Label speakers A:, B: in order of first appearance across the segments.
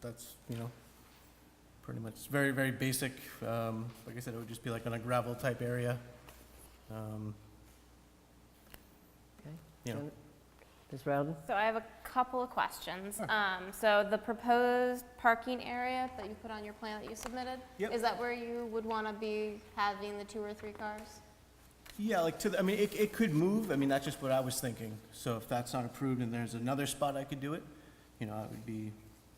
A: that's, you know, pretty much, it's very, very basic. Um, like I said, it would just be like on a gravel type area. Um,
B: Okay.
A: Yeah.
B: So, Ms. Rowden?
C: So I have a couple of questions. Um, So the proposed parking area that you put on your plan that you submitted?
A: Yep.
C: Is that where you would want to be having the two or three cars?
A: Yeah, like to, the- I mean, it, it could move, I mean, that's just what I was thinking. So if that's not approved and there's another spot I could do it, you know, I would be,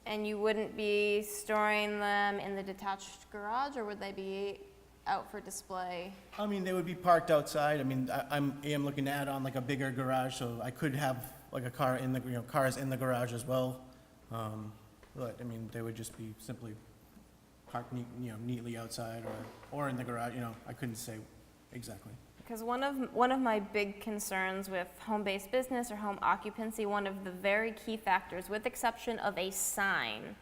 C: And you wouldn't be storing them in the detached garage, or would they be out for display?
A: I mean, they would be parked outside, I mean, I, I'm, I am looking to add on like a bigger garage, so I could have like a car in the, you know, cars in the garage as well. Um, But, I mean, they would just be simply parked neat, you know, neatly outside or, or in the garage, you know, I couldn't say exactly.
C: Because one of, one of my big concerns with home-based business or home occupancy, one of the very key factors, with exception of a sign,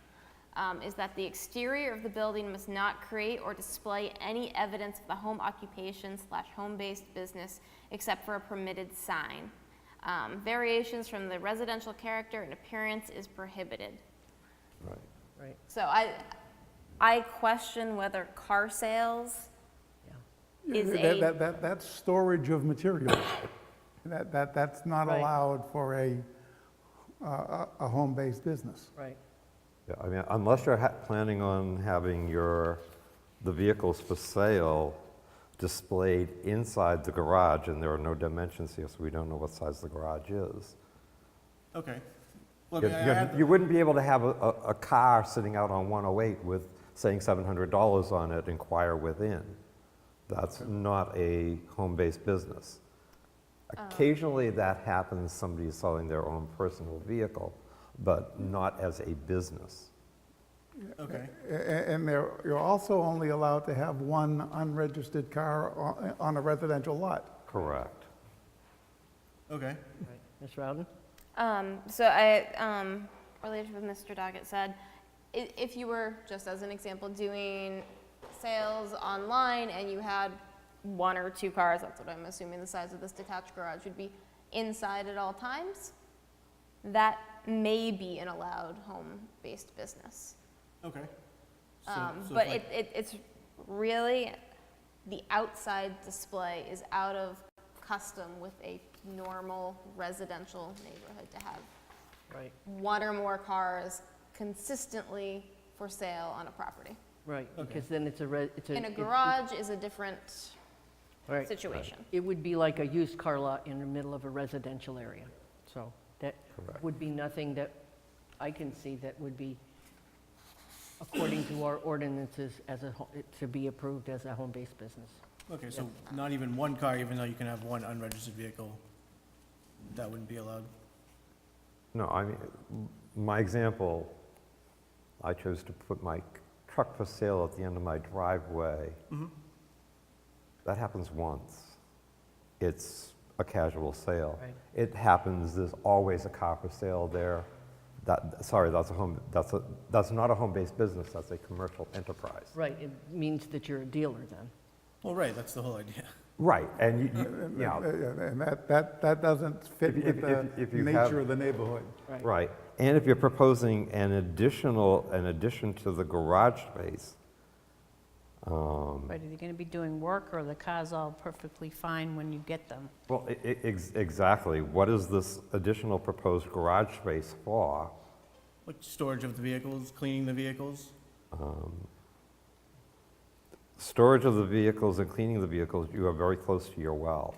C: um, is that the exterior of the building must not create or display any evidence of the home occupation slash home-based business except for a permitted sign. Um, variations from the residential character and appearance is prohibited.
D: Right.
B: Right.
C: So I, I question whether car sales is
E: That-
C: a
E: that- that- That's storage of materials. That, that, that's not
B: Right.
E: allowed for a, a- a, a home-based business.
B: Right.
D: Yeah, I mean, unless you're ha- planning on having your, the vehicles for sale displayed inside the garage, and there are no dimensions here, so we don't know what size the garage is.
A: Okay. Well, I
D: You-
A: mean, I
D: you-
A: have the-
D: You wouldn't be able to have a, a a car sitting out on 108 with, saying $700 on it, inquire within. That's not a home-based business.
A: Oh.
D: Occasionally, that happens, somebody is selling their own personal vehicle, but not as a business.
A: Okay,
E: A- a- And there, you're also only allowed to have one unregistered car o- on a residential lot.
D: Correct.
A: okay.
B: Right. Ms. Rowden?
C: Um, so I, um, related to what Mr. Doggett said, i- if you were, just as an example, doing sales online and you had one or two cars, that's what I'm assuming the size of this detached garage would be, inside at all times, that may be an allowed home-based business.
A: Okay. So-
C: Um,
A: so
C: but
A: if
C: it,
A: I-
C: it, it's really, the outside display is out of custom with a normal residential neighborhood to have
B: Right,
C: one or more cars consistently for sale on a property.
B: right,
A: Okay.
B: because then it's a, re- it's a.
C: In a
B: it- it-
C: garage is a different
B: Right.
C: situation.
B: It would be like a used car lot in the middle of a residential area. So that would be nothing that I can see that would be, according to our ordinances, as a, ho- to be approved as a home-based business.
A: Okay, so not even one car, even though you can have one unregistered vehicle, that wouldn't be allowed?
D: No, I mean, m- my example, I chose to put my truck for sale at the end of my driveway.
B: Mm-hmm.
D: That happens once. It's a casual sale.
B: Right.
D: It happens, there's always a car for sale there. That, sorry, that's a home, that's a, that's not a home-based business, that's a commercial enterprise.
B: Right, it means that you're a dealer then.
A: Well, right, that's the whole idea.
D: Right, and you- you,
E: Uh,
D: yeah,
E: And that, that, that doesn't fit
D: If-
E: with
D: if-
E: the
D: if- if you have-
E: nature of the neighborhood.
D: Right, and if you're proposing an additional, an addition to the garage space, um,
F: Right, are they going to be doing work, or are the cars all perfectly fine when you get them?
D: Well, e- e- ex- exactly. What is this additional proposed garage space for?
A: Like storage of the vehicles, cleaning the vehicles?
D: Storage of the vehicles and cleaning the vehicles, you are very close to your well.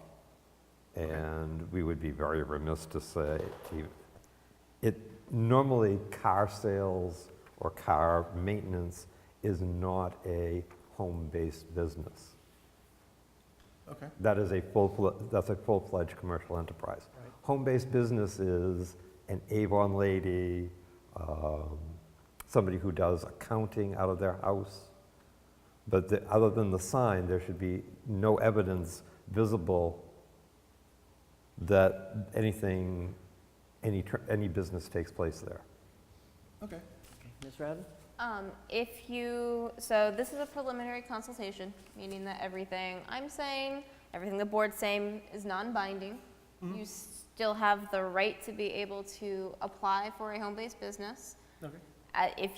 D: And we would be very remiss to say, to- it, normally car sales or car maintenance is not a home-based business.
A: Okay,
D: That is a full, that's a full-fledged commercial enterprise. Home-based business is an Avon lady, um, somebody who does accounting out of their house. But the- other than the sign, there should be no evidence visible that anything, any, tr- any business takes place there.
A: okay.
B: Okay, Ms. Rowden?
C: Um, if you, so this is a preliminary consultation, meaning that everything I'm saying, everything the board's saying is non-binding. You still have the right to be able to apply for a home-based business.
A: Okay.
C: Uh, if